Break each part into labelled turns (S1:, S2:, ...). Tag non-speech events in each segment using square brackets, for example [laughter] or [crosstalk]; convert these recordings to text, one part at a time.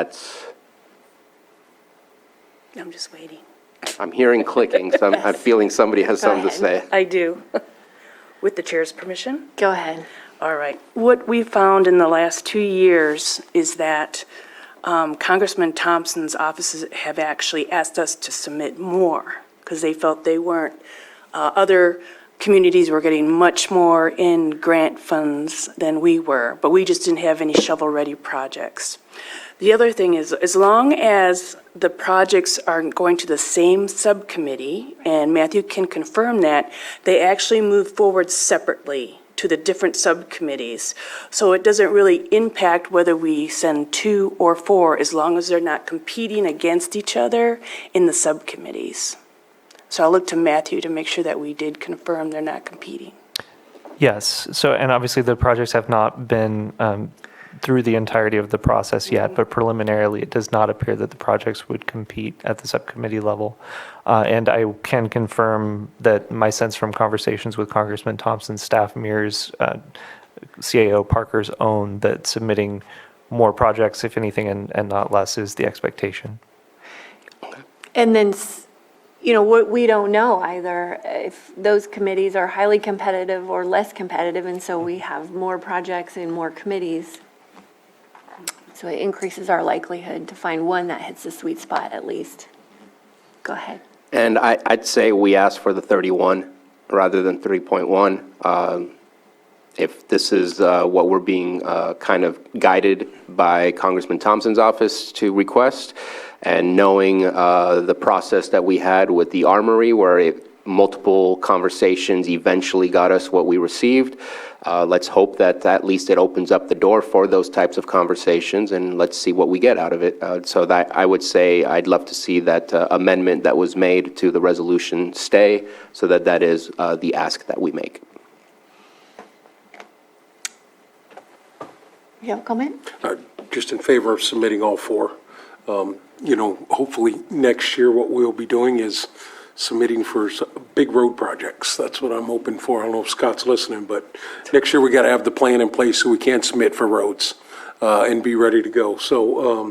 S1: That's,
S2: I'm just waiting.
S1: I'm hearing clicking, so I'm, I'm feeling somebody has something to say.
S2: I do. [laughs] With the chair's permission?
S3: Go ahead.
S2: All right. What we found in the last two years is that um, Congressman Thompson's offices have actually asked us to submit more because they felt they weren't. Uh, Other communities were getting much more in grant funds than we were, but we just didn't have any shovel-ready projects. The other thing is, as long as the projects are going to the same subcommittee, and Matthew can confirm that, they actually move forward separately to the different subcommittees. So it doesn't really impact whether we send two or four, as long as they're not competing against each other in the subcommittees. So I'll look to Matthew to make sure that we did confirm they're not competing.
S4: Yes, so, and obviously the projects have not been um, through the entirety of the process yet, but preliminarily, it does not appear that the projects would compete at the subcommittee level. Uh, And I can confirm that my sense from conversations with Congressman Thompson's staff mirrors uh, CAO Parker's own, that submitting more projects, if anything, and and not less, is the expectation.
S3: And then, s- you know, what we don't know either, if those committees are highly competitive or less competitive, and so we have more projects and more committees. So it increases our likelihood to find one that hits the sweet spot at least. Go ahead.
S1: And I, I'd say we asked for the 31 rather than 3.1. Um, If this is uh, what we're being uh, kind of guided by Congressman Thompson's office to request, and knowing uh, the process that we had with the Armory, where it- multiple conversations eventually got us what we received, uh, let's hope that at least it opens up the door for those types of conversations, and let's see what we get out of it. Uh, So that, I would say, I'd love to see that uh, amendment that was made to the resolution stay, so that that is uh, the ask that we make.
S3: You have a comment?
S5: Uh, just in favor of submitting all four. Um, You know, hopefully, next year, what we'll be doing is submitting for s- big road projects. That's what I'm hoping for. I don't know if Scott's listening, but next year, we got to have the plan in place so we can submit for roads uh, and be ready to go. So, um,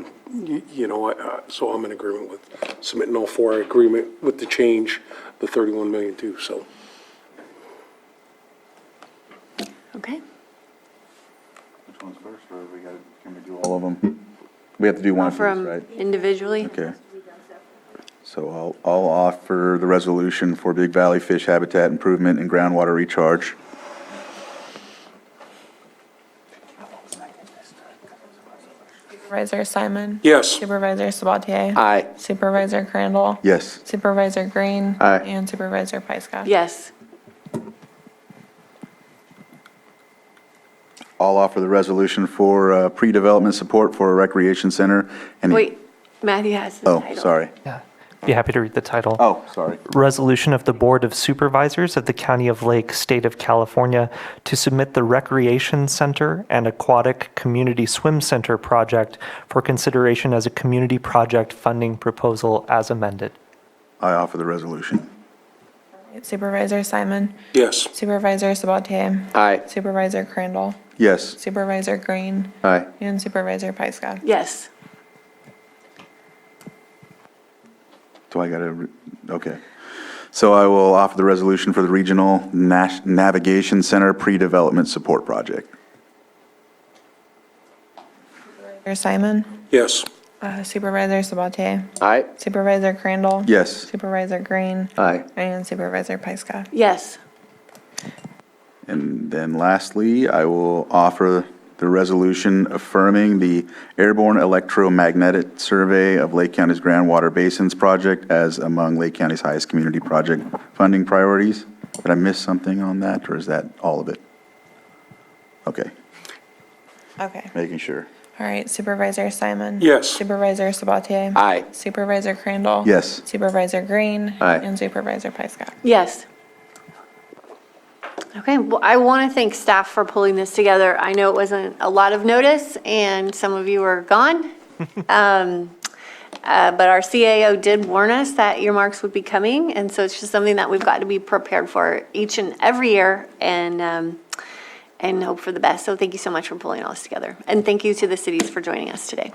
S5: y- you know, I- I- so I'm in agreement with submitting all four, I agreement with the change, the 31 million too, so.
S3: Okay.
S6: Which one's first, or we got, can we do all of them? We have to do one of these,
S3: From
S6: right?
S3: individually?
S6: Okay. So I'll, I'll offer the resolution for Big Valley Fish Habitat Improvement and Groundwater Recharge.
S7: Supervisor Simon?
S5: Yes,
S7: Supervisor Sabatier?
S1: Aye.
S7: Supervisor Crandall?
S6: Yes.
S7: Supervisor Green?
S6: Aye.
S7: And Supervisor Pyska?
S3: Yes.
S6: I'll offer the resolution for uh, pre-development support for a recreation center. and-
S3: Wait, Matthew has the
S6: Oh,
S3: title.
S6: sorry.
S4: Yeah, be happy to read the title.
S6: Oh, sorry.
S4: resolution of the Board of Supervisors of the County of Lake, State of California, to submit the Recreation Center and Aquatic Community Swim Center project for consideration as a community project funding proposal as amended.
S6: I offer the resolution.
S7: Supervisor Simon?
S5: yes.
S7: Supervisor Sabatier?
S1: Aye.
S7: Supervisor Crandall?
S6: Yes.
S7: Supervisor Green?
S6: Aye.
S7: And Supervisor Pyska?
S3: Yes.
S6: Do I gotta, re- okay. So I will offer the resolution for the Regional Nas- Navigation Center Pre-Development Support Project.
S7: Supervisor Simon?
S5: Yes.
S7: Uh, Supervisor Sabatier?
S1: Aye.
S7: Supervisor Crandall?
S6: Yes.
S7: Supervisor Green?
S1: Aye.
S7: And Supervisor Pyska?
S3: Yes.
S6: And then lastly, I will offer the resolution affirming the Airborne Electromagnetic Survey of Lake County's Groundwater Basins Project as among Lake County's highest community project funding priorities. Did I miss something on that, or is that all of it? Okay,
S7: Okay.
S6: making sure.
S7: All right, Supervisor Simon?
S5: Yes.
S7: Supervisor Sabatier?
S1: Aye.
S7: Supervisor Crandall?
S6: Yes.
S7: Supervisor Green?
S1: Aye.
S7: And Supervisor Pyska?
S3: Yes. Okay, well, I want to thank staff for pulling this together. I know it wasn't a lot of notice, and some of you were gone. Um, uh, But our CAO did warn us that earmarks would be coming, and so it's just something that we've got to be prepared for each and every year and, um, and hope for the best. So thank you so much for pulling all this together. And thank you to the cities for joining us today.